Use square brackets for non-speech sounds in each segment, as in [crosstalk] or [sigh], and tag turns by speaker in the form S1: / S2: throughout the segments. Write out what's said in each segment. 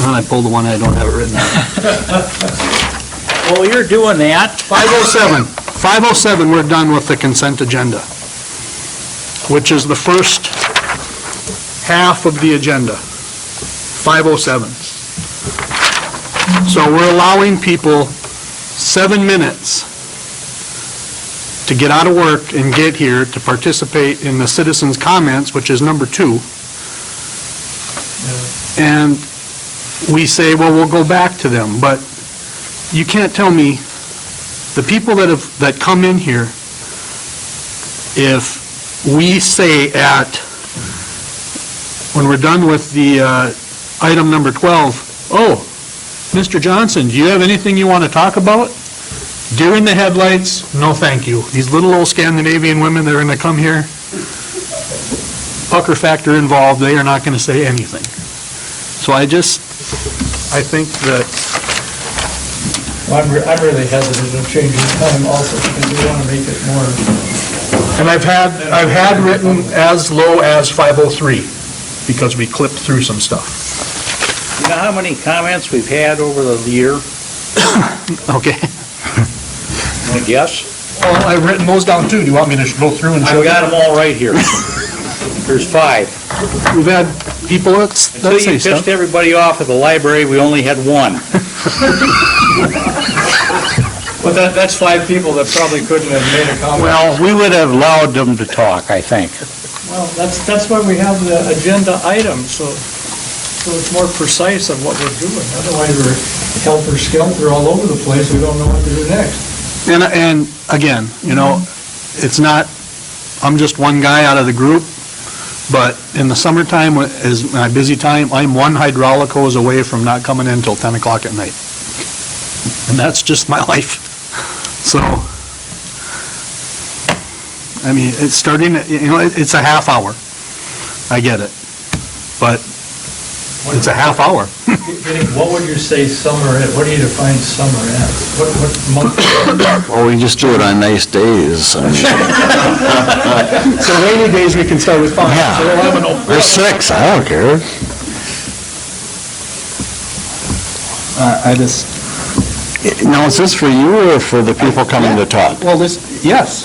S1: And I pulled the one I don't have it written on.
S2: [laughs] Well, you're doing that.
S1: 507, 507, we're done with the consent agenda, which is the first half of the agenda, 507. So we're allowing people seven minutes to get out of work and get here to participate in the citizens' comments, which is number two. And we say, well, we'll go back to them, but you can't tell me the people that have, that come in here, if we say at, when we're done with the uh, item number 12, oh, Mr. Johnson, do you have anything you want to talk about? Deer in the headlights, no thank you. These little old Scandinavian women that are going to come here, pucker factor involved, they are not going to say anything. So I just, I think that
S3: Well, I'm, re- I'm really hesitant of changing the time also, because we want to make it more,
S1: And I've had, I've had written as low as 503, because we clipped through some stuff.
S2: You know how many comments we've had over the year?
S1: Okay.
S2: I guess.
S1: Well, I've written those down too. Do you want me to go through and show you?
S2: I've got them all right here. There's five.
S1: We've had people that s-
S2: Until
S1: that say
S2: you
S1: stuff.
S2: pissed everybody off at the library, we only had one.
S3: but that, that's five people that probably couldn't have made a comment.
S2: Well, we would have allowed them to talk, I think.
S3: Well, that's, that's why we have the agenda item, so, so it's more precise of what we're doing. Otherwise, we're helter-skelter all over the place, we don't know what to do next.
S1: And, and again, you know, it's not, I'm just one guy out of the group, but in the summertime wh- is my busy time. I'm one hydraulicos away from not coming in till 10 o'clock at night. And that's just my [laughs] life. So, I mean, it's starting, at- you know, it- it's a half hour. I get it. But it's a half hour.
S3: What would you say summer, what do you define summer as? What, what month?
S4: Well, we just do it on nice days. I mean,
S1: [laughs] So rainy days, we can start with five.
S4: Yeah.
S1: So we'll have an open-
S4: Or six, I don't care.
S5: I I just,
S4: Now, is this for you or for the people coming to talk?
S1: Well, this, yes.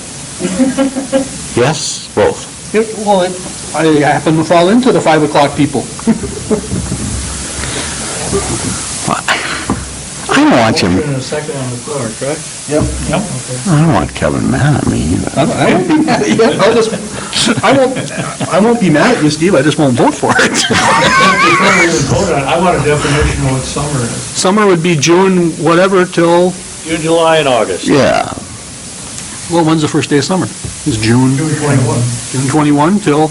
S4: Yes, both.
S1: It, well, it, I happen to fall into the five o'clock people.
S4: I don't want you,
S3: Motion and a second on the floor, correct?
S4: I don't want Kevin mad at me either.
S1: I I won't be mad
S5: [laughs]
S1: at you. I'll just, I won't, I won't be mad at you, Steve, I just won't vote for it. [laughs]
S3: Before we even vote on it, I want a definition of what summer is.
S1: Summer would be June, whatever, till,
S2: June, July, and August.
S4: Yeah,
S1: well, when's the first day of summer? It's June,
S3: June 21.
S1: June twenty-one till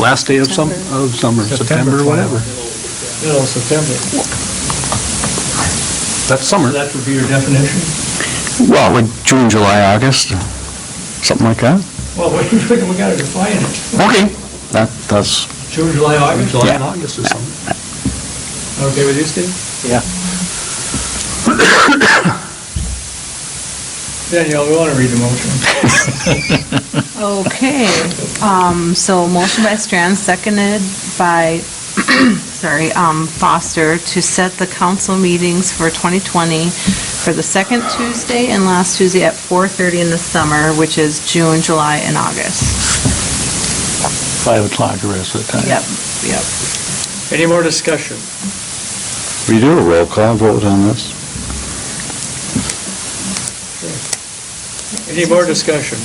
S1: last day of some, of summer, September, whatever.
S3: Middle of September.
S1: That's summer.
S3: That would be your definition?
S4: well, like June, July, August, something like that.
S3: Well, what do you think we gotta define it?
S4: Okay, that, that's,
S3: June, July, August?
S1: July and August is summer.
S3: Okay with you, Steve?
S2: Yeah.
S3: Danielle, we wanna read the motion.
S6: Okay, um, so motion by Strand, seconded by, [clears throat] sorry, um, Foster, to set the council meetings for 2020 for the second Tuesday and last Tuesday at 4:30 in the summer, which is June, July, and August.
S2: Five o'clock the rest of the time.
S6: Yep, yep.
S3: Any more discussion?
S4: we do a roll call vote on this?
S3: Any more discussion?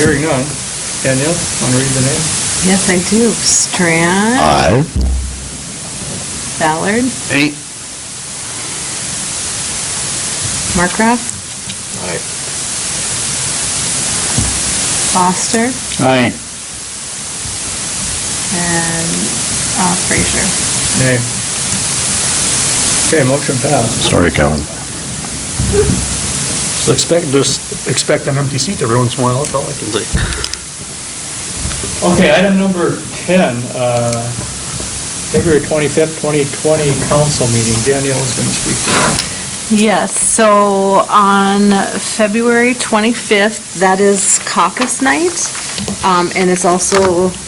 S3: Hearing none. Danielle, wanna read the name?
S6: Yes, I do. Strand,
S4: Aye.
S6: Ballard,
S1: Eight,
S6: Markraff, Foster,
S2: Aye.
S6: and uh, Frazier.
S3: Nay. Okay, motion passed.
S4: Sorry, Kevin.
S1: So expect, just expect an empty seat every once in a while, that's all I can say.
S3: Okay, item number 10, uh, February 25th, 2020 council meeting. Danielle is gonna speak.
S6: Yes, so on February 25th, that is caucus night, um, and it's also